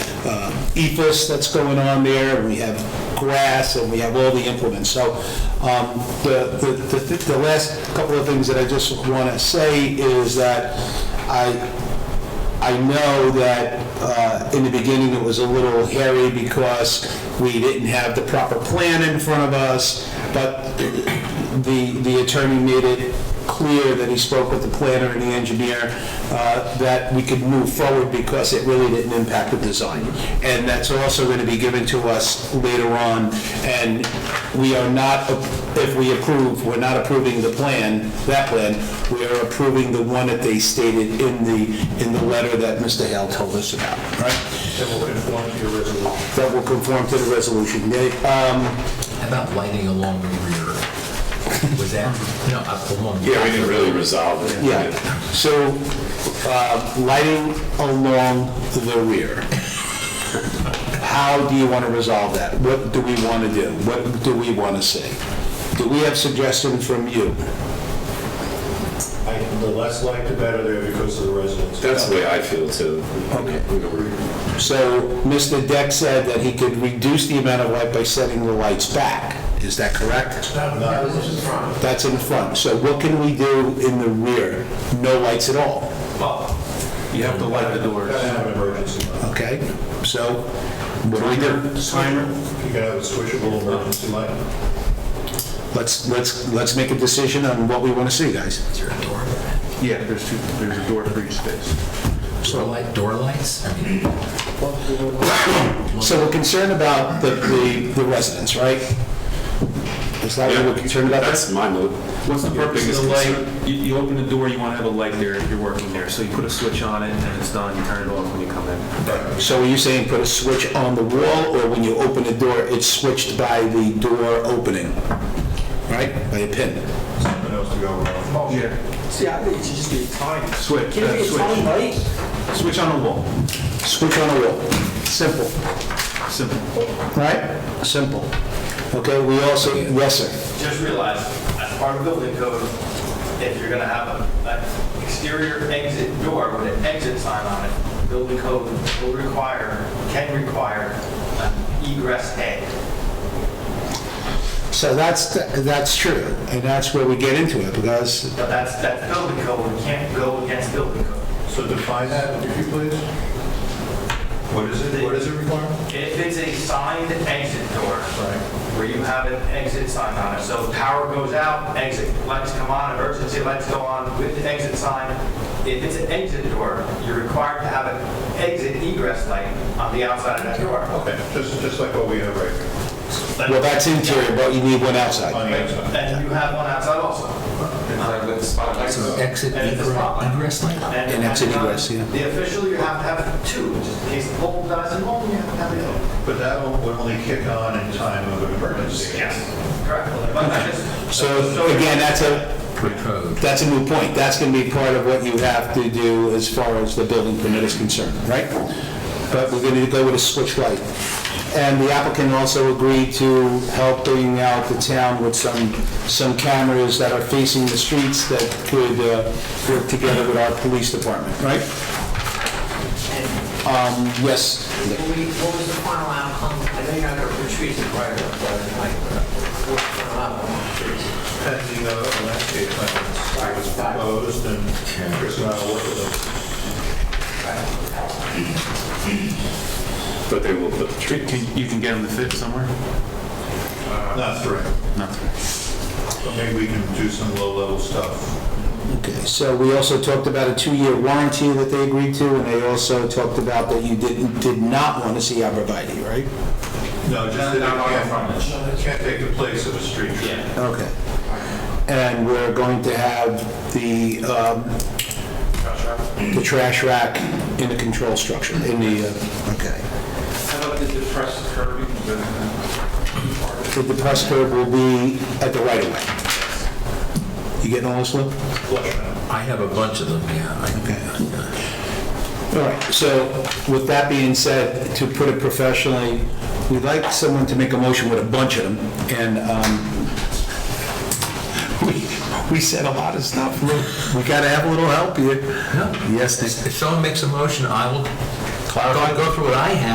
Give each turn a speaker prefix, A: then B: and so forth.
A: uh, ethos that's going on there, and we have grass, and we have all the implements. So um, the, the, the the last couple of things that I just want to say is that I, I know that uh, in the beginning it was a little hairy because we didn't have the proper plan in front of us, but the, the attorney made it clear that he spoke with the planner and the engineer uh, that we could move forward because it really didn't impact the design. And that's also going to be given to us later on, and we are not, if we approve, we're not approving the plan, that plan, we are approving the one that they stated in the, in the letter that Mr. Hale told us about, right?
B: That will conform to your resolution.
A: That will conform to the resolution. They, um,
C: How About lighting along the rear. Was that, no, up along.
D: Yeah, we didn't really resolve it.
A: Yeah, so uh, lighting along the rear. How do you want to resolve that? What do we want to do? What do we want to see? Do we have suggestions from you?
B: I- The less light, the better there because of the residents.
D: That's the way I feel too.
A: Okay. So Mr. Deck said that he could reduce the amount of light by setting the lights back. Is that correct?
B: Not as in front.
A: That's in front. So what can we do in the rear? No lights at all,
E: You have to light the doors.
B: Gotta have an emergency light.
A: okay? So what do we do?
B: Timer. You gotta have a switchable emergency light.
A: Let's, let's, let's make a decision on what we want to see, guys.
C: Is there a door?
E: Yeah, there's two, there's a door for each space.
C: Door light, door lights? I mean,
A: So we're concerned about the, the the residents, right? Is that what we're concerned about?
D: That's my mood.
E: What's the
D: Your
E: purpose of
D: biggest
E: the
D: concern.
E: light? You, you open the door, you want to have a light there if you're working there, so you put a switch on it and it's done, you turn it off when you come in.
A: So are you saying put a switch on the wall, or when you open the door, it's switched by the door opening? Right, by a pin?
B: Something else to go wrong.
E: Oh, Yeah.
F: See, I think it should just be timed.
E: Switch,
F: Can it
E: uh,
F: be a timed
E: switch,
F: light?
E: switch on a wall,
A: Switch on the wall, simple,
E: simple.
A: right? Simple. Okay, we also, yes, sir.
G: just realize, as part of building code, if you're gonna have an exterior exit door with an exit sign on it, building code will require, can require an egress head.
A: So that's, that's true, and that's where we get into it, because
G: But that's, that's building code, we can't go against building code.
B: So define that, if you please. What is it, what is it require?
G: If it's a signed exit door, where you have an exit sign on it, so power goes out, exit, lights come on, emergency lights go on with the exit sign. If it's an exit door, you're required to have an exit egress light on the outside of that door.
B: Okay, just, just like what we have right here,
A: Well, that's interior, but you need one outside.
B: on the outside.
G: And you have one outside also.
C: so exit,
G: And it's a spotlight.
C: egre- egress light?
A: An exit egress, yeah.
G: The official, you have to have two, just in case the pole dies in
C: Oh,
G: one, you have to have the other.
B: But that will- would only kick on in time of an emergency.
G: Yes. Correct. But I just-
A: So again, that's a,
C: Code.
A: That's a new point. That's going to be part of what you have to do as far as the building permit is concerned, right? But we're going to go with a switch light. And the applicant also agreed to helping out the town with some, some cameras that are facing the streets that could uh, work together with our police department, right? Um, Yes,
H: What we- what was the final outcome? I know you're not going to retreat the prior, but like, what was the final outcome?
B: Pending uh, landscape plan, it was proposed and Chris and I will work with them.
D: But they will put the tree.
E: Can, you can get them to fit somewhere?
B: Not three. Not three. But maybe we can do some low-level stuff.
A: Okay, so we also talked about a two-year warranty that they agreed to, and they also talked about that you didn't, did not want to see arborvitae, right?
B: No, just that it can't, it can't take the place of a street tree.
A: Okay. And we're going to have the, um, the trash rack in the control structure, in the, uh, okay. How about the depressed curb? The depressed curb will be at the right of way. You getting all this, Lou?
C: I have a bunch of them, yeah. I-
A: All right, so with that being said, to put it professionally, we'd like someone to make a motion with a bunch of them, and um, we we said a lot of stuff. We gotta have a little help here. Yes, Nick?
C: If someone makes a motion, I will go go through what I have.